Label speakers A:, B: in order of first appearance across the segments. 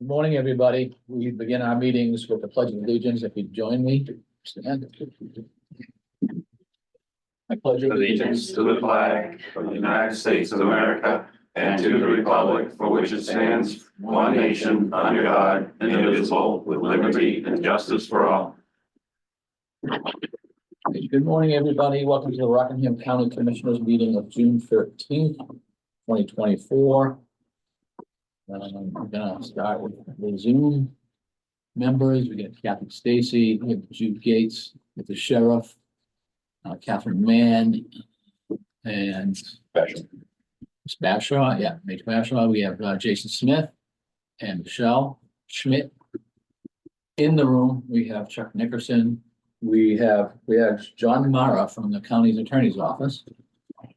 A: Good Morning, everybody. We begin our meetings with the pledge of allegiance. If you'd join me. stand. I pledge
B: allegiance to the flag of the United States of America and to the republic for which it stands, one nation, under God, indivisible, with liberty and justice for all.
A: Good morning, everybody. Welcome to the Rockingham County Commissioners Meeting of June thirteenth, twenty twenty-four. Um, I'm gonna start with the Zoom members. We got Kathy Stacy, we have Jude Gates, we have the sheriff, uh, Catherine Mann, and Ms. Bashaw, yeah, Major Bashaw. We have uh, Jason Smith and Michelle Schmidt. In the room, we have Chuck Nickerson, we have, we have John Mara from the county's attorney's office.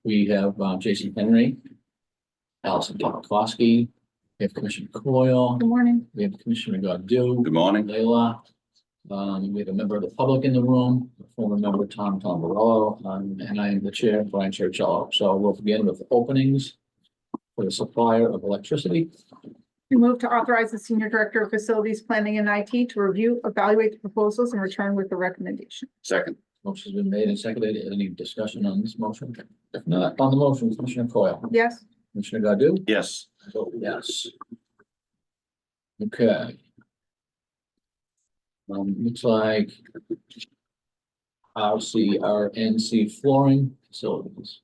A: We have uh, Jason Henry. Allison Polakowski. We have Commissioner Coyle.
C: Good morning.
A: We have Commissioner Godu.
B: Good morning.
A: Leila. Um, we have a member of the public in the room, former member Tom Tombarolo, um, and I am the chair, Brian Churchill. So we'll begin with openings for the supplier of electricity.
C: We move to authorize the Senior Director of Facilities Planning and IT to review, evaluate the proposals and return with a recommendation.
B: Second.
A: Motion's been made and seconded. Any discussion on this motion? If not, on the motion, Commissioner Coyle,
C: Yes,
A: Commissioner Godu?
B: Yes.
A: vote Oh, yes. Okay. Um, looks like. I'll see our NC flooring facilities.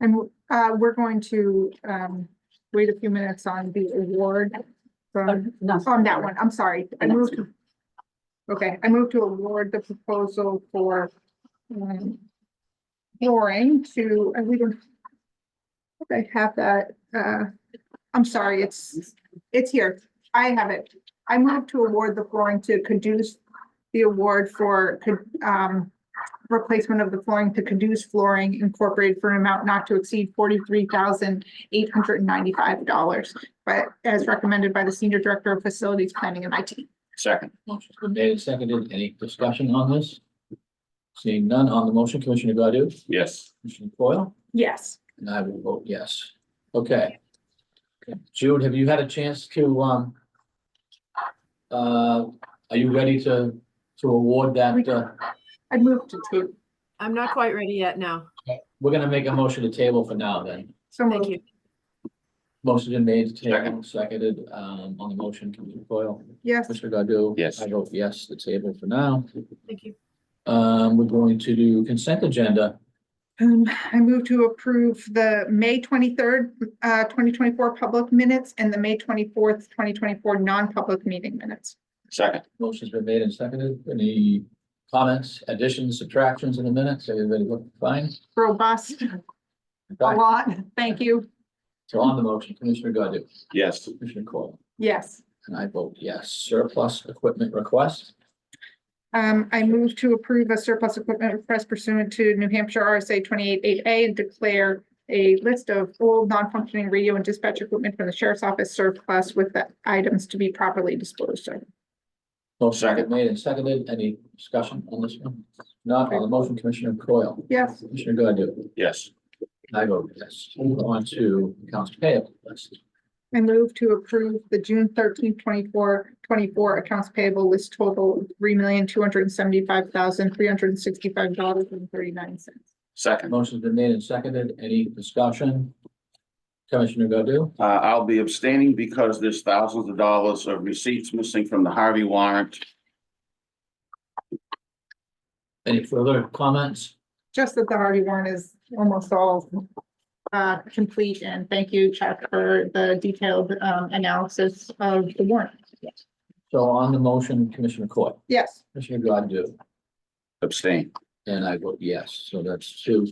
C: and uh, we're going to um, wait a few minutes on the award from, on that one, I'm sorry. I moved. to- Okay, I moved to award the proposal for um, flooring to, and we don't I have that, uh, I'm sorry, it's, it's here. I have it. I move to award the flooring to Caduce, the award for, um, replacement of the flooring to Caduce Flooring Incorporated for an amount not to exceed forty-three thousand eight hundred and ninety-five dollars, but as recommended by the Senior Director of Facilities Planning and IT.
B: Second.
A: Motion's been made and seconded. Any discussion on this? Seeing none on the motion, Commissioner Godu?
B: Yes.
A: Commissioner Coyle?
C: Yes.
A: And I will vote yes. Okay. Jude, have you had a chance to, um. Uh, are you ready to, to award that, uh?
C: I moved to two.
D: I'm not quite ready yet now.
A: We're gonna make a motion to table for now then.
C: So
D: Thank
C: moved.
D: you.
A: Motion been made, to table, seconded, um, on the motion, Commissioner Foil,
C: Yes,
A: Commissioner Godu.
B: Yes.
A: I vote yes, the table for now.
D: Thank you.
A: Um, we're going to do consent agenda.
C: um, I move to approve the May twenty-third, uh, twenty twenty-four public minutes and the May twenty-fourth, twenty twenty-four non-public meeting minutes.
B: Second.
A: Motion's been made and seconded. Any comments, additions, subtractions in the minutes? Everybody look fine?
C: Robust, a
A: Okay.
C: lot. Thank you.
A: So on the motion, Commissioner Godu,
B: Yes.
A: Commissioner Coyle,
C: Yes.
A: and I vote yes. Surplus equipment request.
C: Um, I move to approve a surplus equipment request pursuant to New Hampshire RSA twenty-eight A and declare a list of old non-functioning radio and dispatch equipment from the sheriff's office surplus with the items to be properly disposed of.
A: Motion's been
B: Second.
A: made and seconded. Any discussion on this one? Not on the motion, Commissioner Coyle,
C: Yes,
A: Commissioner Godu.
B: Yes.
A: I vote yes. Move on to accounts payable list.
C: I move to approve the June 13th, 24 24 accounts payable list total three million, two hundred and seventy-five thousand, three hundred and sixty-five dollars and thirty-nine cents.
B: Second.
A: Motion's been made and seconded. Any discussion? Commissioner Godu?
B: Uh, I'll be abstaining because there's thousands of dollars of receipts missing from the Harvey warrant.
A: Any further comments?
C: Just that the Harvey warrant is almost all uh, complete, and thank you, Chuck, for the detailed um, analysis of the warrant.
A: So on the motion, Commissioner Coyle,
C: Yes,
A: Commissioner Godu,
B: Abstain.
A: and I vote yes. So that's two,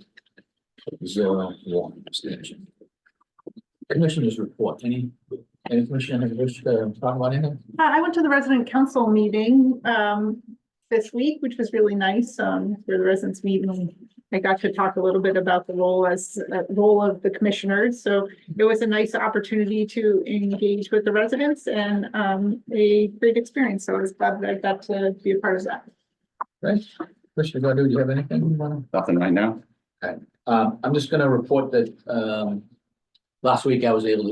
A: zero, one abstention. Commissioners report. Any, any commissioner have wish to talk about anything?
C: Uh, I went to the resident council meeting um, this week, which was really nice, um, where the residents meet and I got to talk a little bit about the role as, uh, role of the commissioners. So it was a nice opportunity to engage with the residents and um, a great experience. So I was glad that I got to be a part of that.
A: Right? Commissioner Godu, do you have anything you want to?
B: Nothing right now?
A: Um, I'm just gonna report that, um, last week I was able to